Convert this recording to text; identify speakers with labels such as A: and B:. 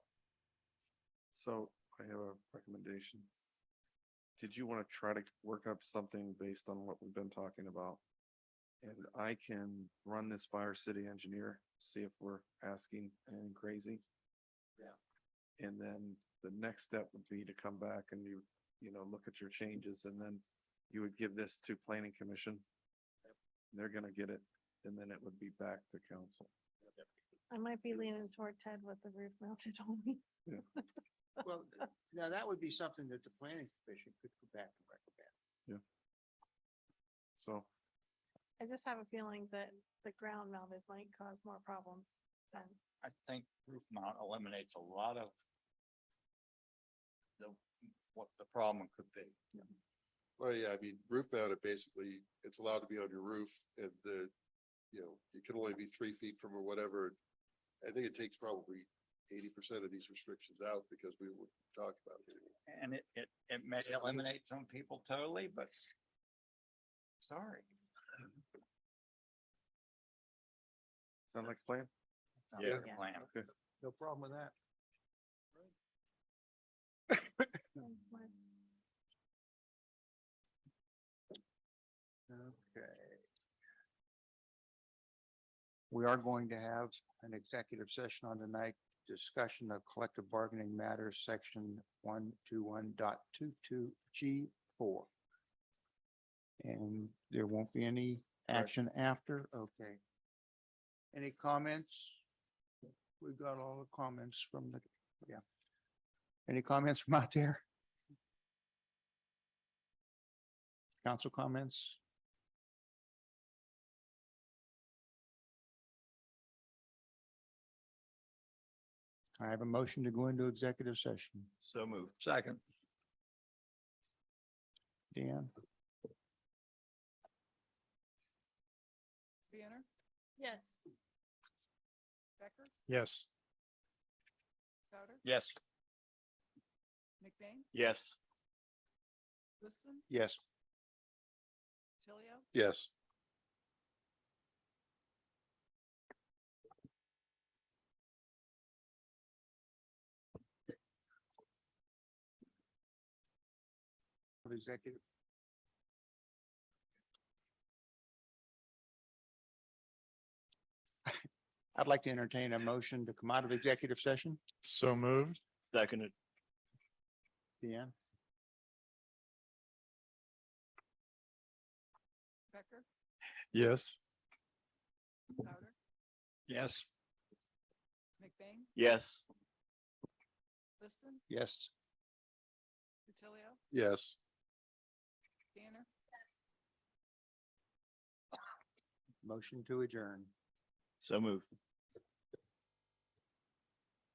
A: So I have a recommendation. Did you want to try to work up something based on what we've been talking about? And I can run this by our city engineer, see if we're asking anything crazy. Yeah. And then the next step would be to come back and you, you know, look at your changes and then you would give this to planning commission. They're gonna get it and then it would be back to council.
B: I might be leaning toward Ted with the roof mounted only.
C: Well, now that would be something that the planning commission could go back and recommend.
A: So
B: I just have a feeling that the ground mounted might cause more problems than,
D: I think roof mount eliminates a lot of the, what the problem could be.
E: Well, yeah, I mean, roof mounted, basically, it's allowed to be on your roof and the, you know, you can only be three feet from or whatever. I think it takes probably eighty percent of these restrictions out because we would talk about it.
D: And it, it, it may eliminate some people totally, but sorry.
A: sound like a plan?
D: not
E: Yeah.
D: the plan.
A: Okay.
C: No problem with that.
B: than what-
C: Okay. We are going to have an executive session on the night, discussion of collective bargaining matters, section one two one dot two two G four. And there won't be any action after, okay. Any comments? We've got all the comments from the, yeah. Any comments from out there? Council comments? I have a motion to go into executive session.
D: So move. Second.
C: Dan,
F: Banner,
B: Yes.
F: Becker,
G: Yes.
F: Souter,
D: Yes.
F: McBain,
D: Yes.
F: Liston,
C: yes.
F: Tilio,
E: Yes.
C: Executive. I'd like to entertain a motion to come out of executive session.
G: So moved.
D: Seconded.
C: Dan,
F: Becker,
G: Yes.
F: Souter,
D: Yes.
F: McBain,
D: Yes.
F: Liston,
C: yes.
F: Tilio,
E: Yes.
F: Banner,
C: Motion to adjourn.
D: So move.